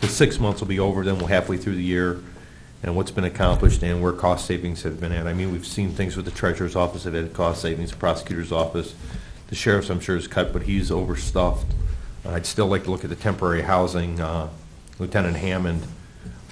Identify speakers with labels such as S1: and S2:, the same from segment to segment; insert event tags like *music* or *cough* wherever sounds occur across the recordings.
S1: six months will be over, then we're halfway through the year, and what's been accomplished and where cost savings have been at. I mean, we've seen things with the treasurer's office have had cost savings, the prosecutor's office, the sheriff's, I'm sure, is cut, but he's overstuffed. I'd still like to look at the temporary housing. Uh, Lieutenant Hammond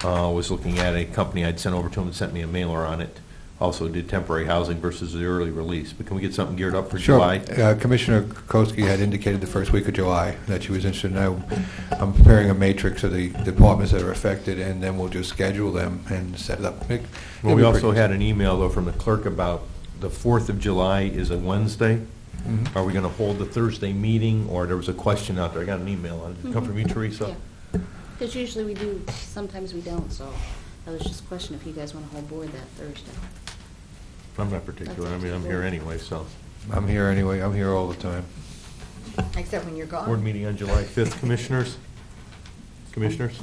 S1: uh, was looking at a company I'd sent over to him and sent me a mailer on it, also did temporary housing versus the early release. But can we get something geared up for
S2: Sure.
S1: July?
S2: Uh, Commissioner Kokoski had indicated the first week of July that she was interested, and I- I'm preparing a matrix of the departments that are affected, and then we'll just schedule them and set it up.
S1: Well,
S2: It- it'll
S1: we
S2: be
S1: also
S2: pretty-
S1: had an email, though, from the clerk about the 4th of July is a Wednesday.
S2: Mhm.
S1: Are we going to hold the Thursday meeting, or there was a question out there, I got an email on it, did it come from you, Teresa?
S3: Because Mm-hmm. usually we do, sometimes we don't, so I was just questioning if you guys want to hold board that Thursday.
S1: I'm not particular, I mean, I'm here anyway, so.
S2: I'm here anyway, I'm here all the time.
S4: Except when you're gone.
S1: Board meeting on July 5th, commissioners? Commissioners?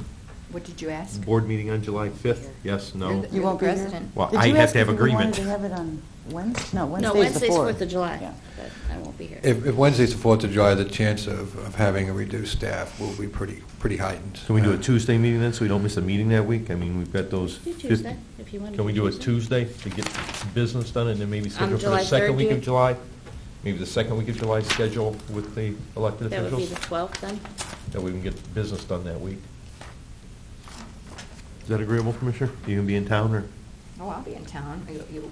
S4: What did you ask?
S1: Board meeting on July 5th, yes,
S4: You're
S1: no?
S4: the- You won't be here? president.
S1: Well,
S5: Did
S1: I
S5: you
S1: have
S5: ask
S1: to have
S5: if you
S1: agreement.
S5: wanted to have it on Wednesday? No, Wednesday's the 4th.
S3: No, Wednesday's 4th of July,
S5: Yeah.
S3: but I won't be here.
S2: If if Wednesday's the 4th of July, the chance of of having a reduced staff will be pretty pretty heightened.
S1: Can we do a
S2: Uh,
S1: Tuesday meeting then, so we don't miss a meeting that week? I mean, we've got those.
S3: Do
S1: 50
S3: Tuesday, if you want to
S1: Can we do
S3: do
S1: it Tuesday to get business done, and then maybe schedule for the
S3: July
S1: second week of
S3: 30th?
S1: July? Maybe the second week of July schedule with the elected
S3: That would be
S1: officials?
S3: the 12th then?
S1: That we can get business done that week. Is that agreeable, Commissioner? You gonna be in town, or?
S4: Oh, I'll be in town. You- You,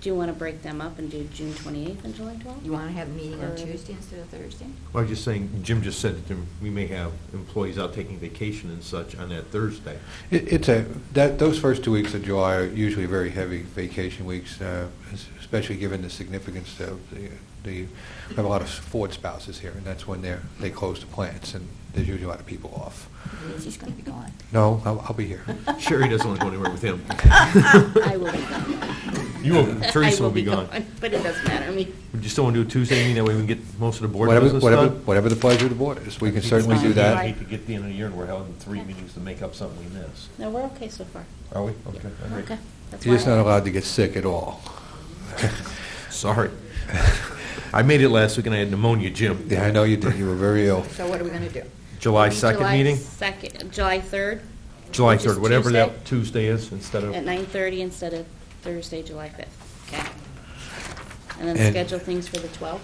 S3: Do you want to break them up and do June 28th and July 12th?
S4: you want to have a meeting on
S3: Or-
S4: Tuesday instead of Thursday?
S1: I was just saying, Jim just said that we may have employees out taking vacation and such on that Thursday.
S2: It- It's a, that, those first two weeks of July are usually very heavy vacation weeks, uh, es- especially given the significance of the, the- we have a lot of Ford spouses here, and that's when they're, they close the plants, and there's usually a lot of people off.
S4: Lindsay's going to
S1: *laughs*
S4: be gone.
S2: No, I'll, I'll be here.
S1: Sherry doesn't want to go anywhere with
S4: *laughs*
S1: him.
S3: I will be gone.
S1: You will, Teresa
S3: *laughs* I
S1: will be gone.
S3: But it doesn't matter, I mean,
S1: Would you still want to do a Tuesday meeting, that way we can get most of the *laughs* board
S2: Whatever,
S1: business
S2: whatever,
S1: done?
S2: whatever the pleasure of the board is, we can
S1: Because
S2: certainly do
S1: we'd
S2: that.
S1: hate to get the end of the year and we're having three meetings to make up something we missed.
S3: no, we're okay so far.
S1: Are we? Okay. I agree.
S3: Okay. that's
S2: You're just
S3: why I-
S2: not allowed to get sick at all.
S1: *laughs* Sorry. *laughs* I made it last week and I had pneumonia, Jim.
S2: Yeah, I know you did, you were very ill.
S4: So what are we going to do?
S1: July 2nd meeting?
S3: July 2nd, July 3rd
S1: July
S3: which is
S1: 3rd, whatever that Tuesday is, instead of,
S3: at 9:30 instead of Thursday, July 5th. Okay. And then
S2: And-
S3: schedule things for the 12th?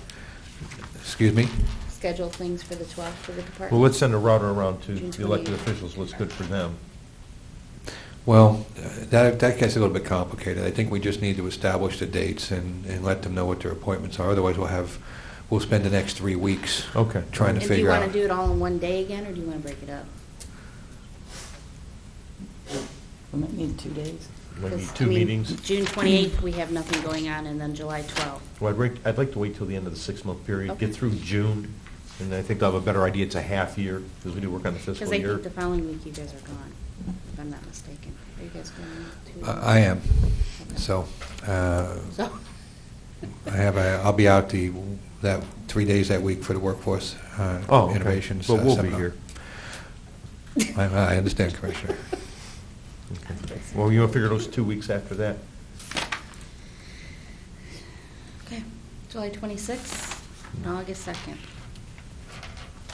S2: Excuse me?
S3: schedule things for the 12th for the department.
S1: well, let's send a router around to
S3: June
S1: the elected
S3: 28th.
S1: officials, what's good for them.
S2: Well, uh, that, that gets a little bit complicated. I think we just need to establish the dates and, and let them know what their appointments are. Otherwise, we'll have, we'll spend the next three weeks.
S1: Okay.
S2: Trying to
S3: And do you
S2: figure
S3: want to
S2: out.
S3: do it all in one day again, or do you want to break it up?
S5: We might need two days.
S1: Might be
S3: 'Cause, I
S1: two
S3: mean,
S1: meetings.
S3: June 28th, we have nothing going on, and then July 12th.
S1: Well, I'd rate- I'd like to wait till the end of the six-month period,
S3: Okay.
S1: get through June, and I think I'll have a better idea. It's a half year, because we do work on the
S3: Because
S1: fiscal
S3: I
S1: year.
S3: think the following week you guys are gone, if I'm not mistaken. Are you guys going to?
S2: I I am, so, uh,
S3: So,
S2: I have, a- I'll be out the, that, three days that week for the workforce uh,
S1: Oh, okay.
S2: innovations.
S1: But
S2: uh,
S1: we'll be
S2: seminar.
S1: here.
S2: I, I understand, Commissioner.
S1: Okay. Well, you want to figure those two weeks after that?
S3: *laughs* okay, July 26th and August 2nd.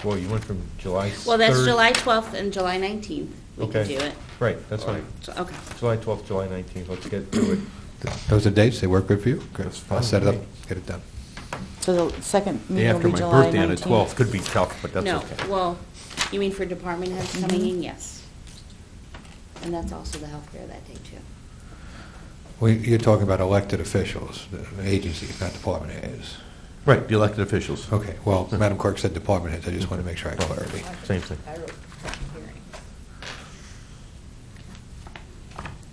S1: Well, you went from July 3rd.
S3: Well, that's July 12th and July 19th. We can
S1: Okay.
S3: do it.
S1: Right, that's fine.
S3: So, Okay.
S1: July 12th, July 19th, let's get through it.
S2: Those are dates, they work good for you? Good.
S1: That's
S2: I'll
S1: fine
S2: set it
S1: with
S2: up,
S1: me.
S2: get it done.
S5: So the second
S1: Day
S5: meeting will
S1: after
S5: be
S1: my
S5: July 19th.
S1: birthday on the 12th could be tough, but that's
S3: No,
S1: okay.
S3: well, you mean for department heads coming
S5: Mhm.
S3: in, yes. And that's also the health fair that day, too.
S2: We- You're talking about elected officials, the agencies, not department heads.
S1: Right, the elected officials.
S2: Okay, well, Madam Clerk said department heads, I just want to make sure I had clarity.
S1: Same thing.
S4: I wrote public hearing.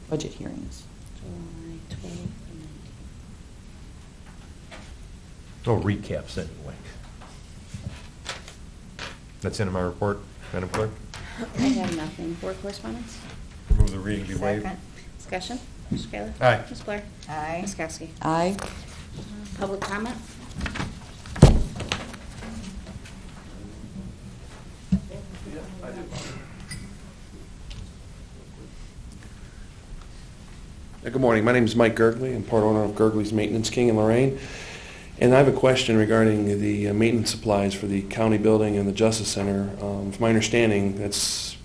S5: Budget hearings.
S3: July 12th and 19th.
S1: Oh, recaps anyway. That's in my report, Madam Clerk.
S3: I have nothing. Board correspondence?
S1: Move the reading be waived.
S4: Second.
S3: Discussion? Mr. Kayla?
S1: Aye.
S3: Ms. Blair?
S4: Aye.
S3: Ms. Kowski?
S5: Aye.
S3: Public comment?
S6: Uh, Good morning. My name is Mike Gergley. I'm part owner of Gergley's Maintenance King in Lorraine. And I have a question regarding the uh, maintenance supplies for the county building and the Justice Center. Um, From my understanding, that's